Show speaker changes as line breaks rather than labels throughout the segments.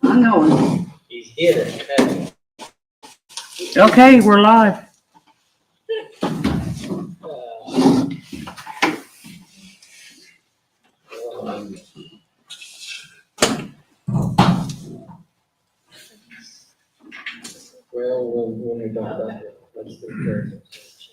one going.
He's here. Hey,
Okay, we're live.
uh, um, Well, when, when we don't, have it, let's do it first.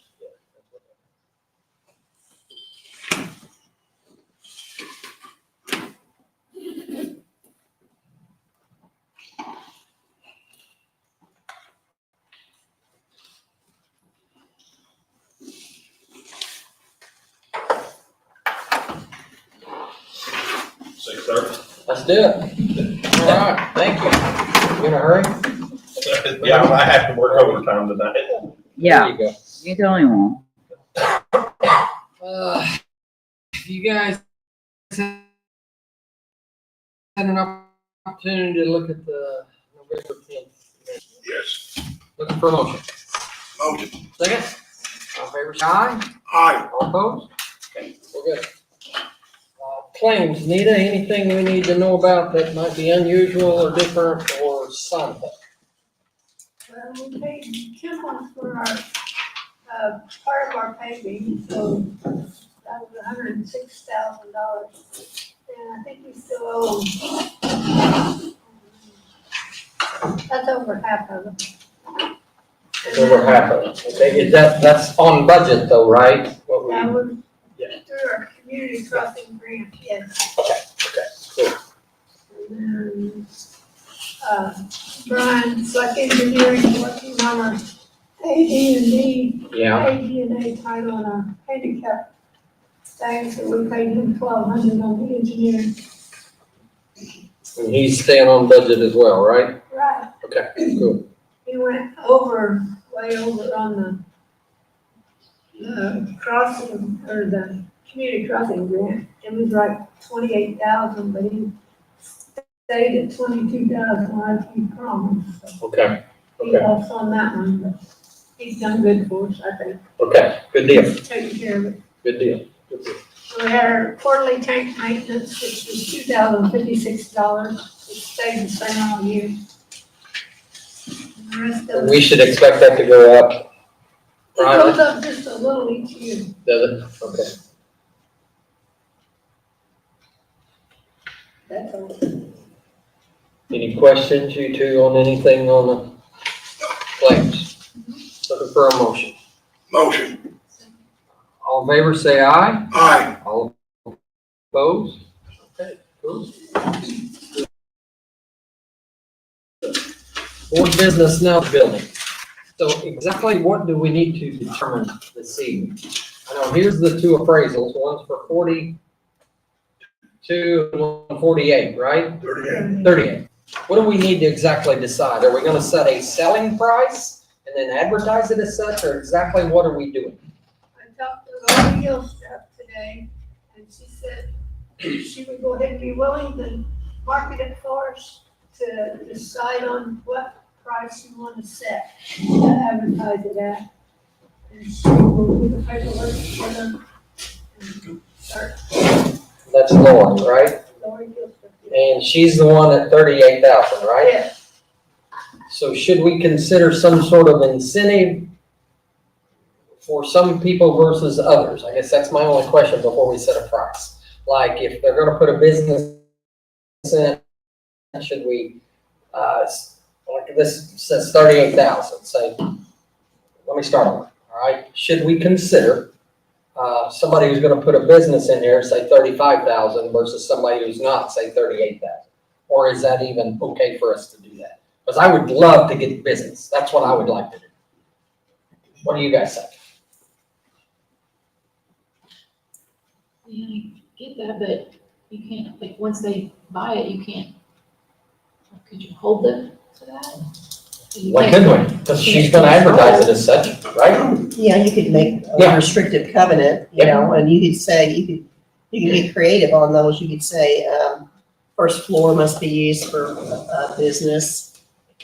Six thirty?
Let's do it. All right, thank you. You in a hurry?
Yeah, I have to work overtime tonight.
Yeah,
There you go.
you're the only one.
Uh, if you guys had an opportunity to look at the November tenth.
Yes.
Looking for a motion.
Motion.
Second? All in favor, say aye.
Aye.
All opposed? Okay, we're good. Uh, Claims, Nita, anything we need to know about that might be unusual or different or something?
Well, we paid two months for our, uh, part of our paving, so that was hundred and six thousand dollars. And I think we still owe. That's over half of it.
Over half of it. Okay, is that, that's on budget though, right? What we,
That was
Yeah.
through our community crossing grant, yes.
okay, cool.
And then, uh, Brian, Slack Engineering, working on our AD and D
Yeah,
AD&A title on our handicap thing, so we paid him twelve hundred on the engineer.
and he's staying on budget as well, right?
Right.
Okay, cool.
He went over, way over on the, the crossing, or the community crossing grant. It was like twenty-eight thousand, but he stayed at twenty-two thousand like he promised. So
Okay,
He
Okay.
lost on that one, but he's done good for us, I think,
okay, good deal,
taking care of it.
good deal. good deal.
We had our quarterly tank maintenance, which was two thousand fifty-six dollars, it stayed the same all year. And the rest of
We
it,
should expect that to go up.
it goes up just a little each year.
Does it? Okay.
That's all.
Any questions, you two, on anything on the claims? Looking for a motion.
Motion.
All in favor, say aye.
Aye.
All opposed? Okay, cool. Board business now building. So exactly what do we need to determine this evening? I know, here's the two appraisals, one's for forty-two, and one forty-eight, right?
Thirty-eight.
Thirty-eight. What do we need to exactly decide? Are we gonna set a selling price and then advertise it as such, or exactly what are we doing?
I talked to Lori Gilstrap today, and she said she would go ahead and be willing to market it for us to decide on what price you want to set, to advertise it at. And she will do the paperwork for them. and Start
That's Lauren, right?
Lori Gilstrap.
And she's the one at thirty-eight thousand, right?
Yeah,
So should we consider some sort of incentive for some people versus others? I guess that's my only question before we set a price. Like, if they're gonna put a business in, should we, uh, s- like this says thirty-eight thousand, say, let me start over, all right? Should we consider, uh, somebody who's gonna put a business in here, say thirty-five thousand versus somebody who's not, say thirty-eight thousand? Or is that even okay for us to do that? Because I would love to get business. That's what I would like to do. What do you guys think?
Yeah, I get that, but you can't, like, once they buy it, you can't, could you hold them to that? You
Why
can't-
couldn't we? Because she's gonna advertise it as such, right?
Yeah, you could make
Yeah.
a restrictive covenant, you
Yeah.
know, and you could say, you could, you could be creative on those, you could say, um, first floor must be used for, uh, business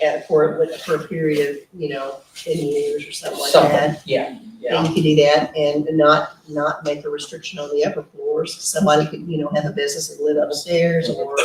at, for, for a period of, you know, ten years or something like
Something,
that.
yeah, yeah,
And you could do that and not, not make a restriction on the upper floors, somebody could, you know, have a business and live upstairs or